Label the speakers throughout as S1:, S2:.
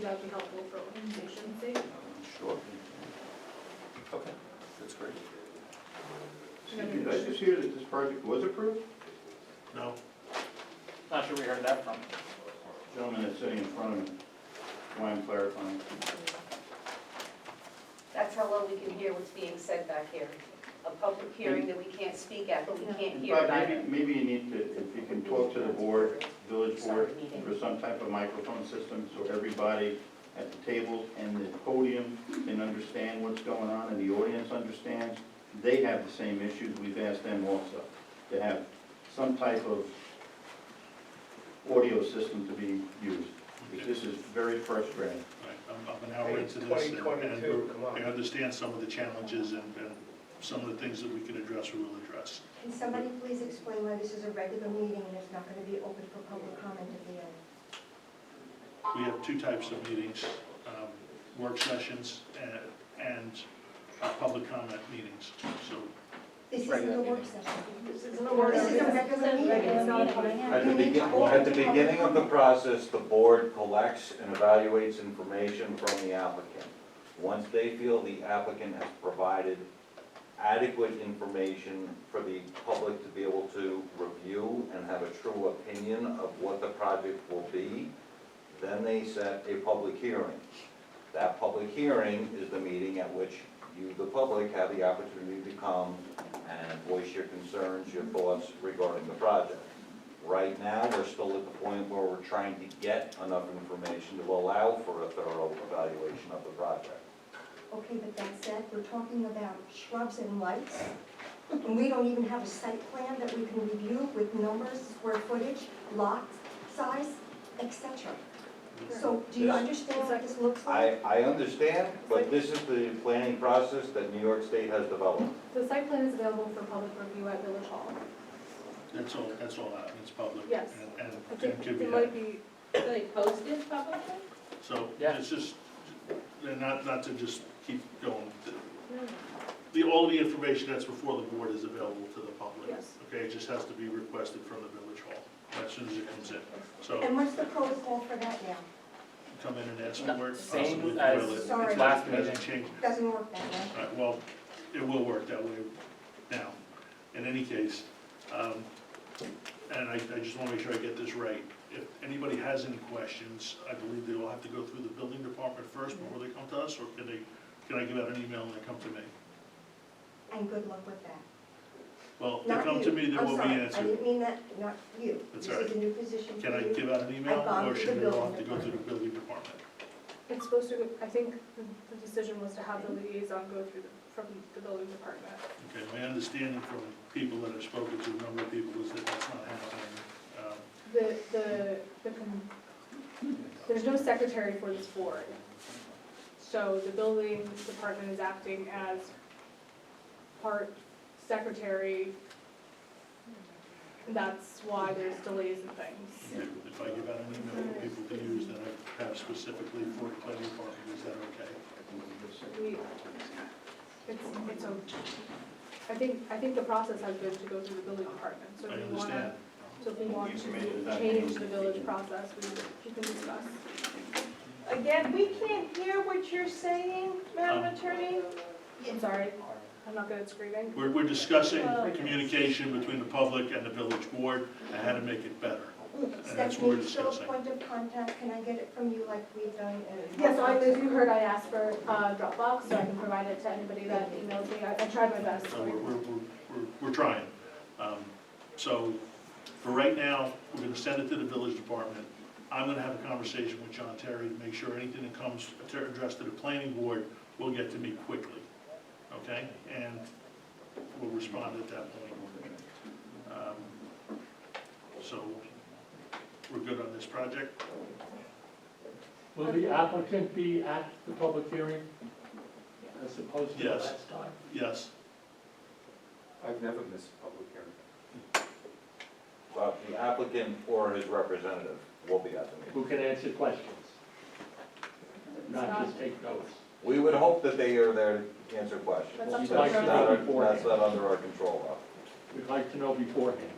S1: that'd be helpful for organization's sake.
S2: Sure. Okay, that's great.
S3: Did I just hear that this project was approved?
S4: No.
S5: Not sure we heard that from.
S3: Gentleman that's sitting in front of me, why I'm clarifying.
S6: That's how well we can hear what's being said back here. A public hearing that we can't speak at, but we can't hear
S3: Bob,
S6: about
S3: maybe,
S6: it.
S3: maybe you need to, if you can talk to the board, village board, for some type of microphone system so everybody at the tables and the podium can understand what's going on and the audience understands. They have the same issues, we've asked them also to have some type of audio system to be used. because This is very frustrating.
S4: Right, I'm- I'm an hour into this, and- and
S7: 2022, come on.
S4: I understand some of the challenges and and some of the things that we can address, we will address.
S8: Can somebody please explain why this is a regular meeting and it's not going to be open for public comment at the end?
S4: We have two types of meetings, um, work sessions and- and uh, public comment meetings. So
S8: This isn't
S5: Regular
S8: a work
S5: meeting.
S8: session.
S1: This isn't a
S8: This is a
S1: word.
S8: regular meeting.
S1: It's not a public
S2: At the begin, at the beginning of the process, the board collects and evaluates information from the applicant. Once they feel the applicant has provided adequate information for the public to be able to review and have a true opinion of what the project will be, then they set a public hearing. That public hearing is the meeting at which you, the public, have the opportunity to come and voice your concerns, your thoughts regarding the project. Right now, we're still at the point where we're trying to get enough information to allow for a thorough evaluation of the project.
S8: Okay, but that said, we're talking about shrubs and lights, and we don't even have a site plan that we can review with numbers, square footage, lot size, etc. So do you
S2: This-
S8: understand what this looks like?
S2: I, I understand, but this is the planning process that New York State has developed.
S1: The site plan is available for public review at Village Hall.
S4: that's all, that's all out, it's public.
S1: Yes.
S4: and-
S1: I
S4: And
S1: think
S4: and can be
S1: it
S4: had.
S1: might be,
S9: They posted publicly?
S4: So
S5: Yeah.
S4: it's just, and not, not to just keep going. The, all the information that's before the board is available to the public.
S1: Yes.
S4: Okay, it just has to be requested from the village hall as soon as it comes in. So
S8: And what's the protocol for that now?
S4: come in and ask for it, possibly
S5: Same
S4: boil
S5: as
S4: it.
S8: Sorry.
S5: last
S4: It
S5: meeting.
S4: hasn't changed.
S8: Doesn't work that way.
S4: All right, well, it will work that way now, in any case. um, And I, I just want to make sure I get this right. If anybody has any questions, I believe they will have to go through the building department first before they come to us, or can they, can I give out an email and they come to me?
S8: And good luck with that.
S4: Well, if they
S8: Not
S4: come to
S8: you.
S4: me, there
S8: I'm
S4: will be
S8: sorry.
S4: an
S8: I
S4: answer.
S8: didn't mean that, not you.
S4: That's all
S8: This is a new position for
S4: Can I
S8: you.
S4: give out an email,
S8: I've gone
S4: or
S8: to
S4: should
S8: the
S4: they all
S8: building
S4: have to go through the building department?
S1: it's supposed to, go- I think the the decision was to have the liaison go through, the- from the building department.
S4: Okay, my understanding from people that I've spoken to, a number of people, is that that's not happening. Um,
S1: The, the, the, com- there's no secretary for this board. So the building department is acting as part secretary. That's why there's delays and things.
S4: If I give out an email for people to use that I have specifically for the planning department, is that okay?
S1: We, it's, it's a, I think, I think the process has been to go through the building department. So
S4: I
S1: if we want
S4: understand.
S1: to, so if we want to change the village process, we, we can discuss.
S9: Again, we can't hear what you're saying, Madam
S4: Um,
S9: Attorney.
S1: I'm sorry, I'm not good at screaming.
S4: We're, we're discussing communication between the public and the village board and how to make it better. And that's what we're
S8: Stephanie, show a
S4: discussing.
S8: point of contact, can I get it from you like we've done? in-
S1: Yeah, so I, as you heard, I asked for uh, Dropbox, so I can provide it to anybody that emails me. I I tried my best.
S4: So we're, we're, we're- we're, we're trying. Um, So for right now, we're gonna send it to the village department. I'm gonna have a conversation with John Terry to make sure anything that comes to- addressed to the planning board will get to me quickly, okay? And we'll respond at that point. Um, So we're good on this project?
S10: Will the applicant be at the public hearing as opposed to
S4: Yes.
S10: last time?
S4: Yes,
S7: I've never missed a public hearing.
S2: Uh, The applicant or his representative will be at the meeting.
S10: Who can answer questions? Not just take notes.
S2: We would hope that they are there to answer questions.
S1: That's up
S2: That's
S1: to the
S2: not, our-
S10: board.
S2: that's not under our control, though.
S10: We'd like to know beforehand.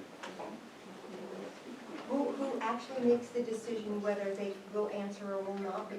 S8: Who, who actually makes the decision whether they will answer or will not,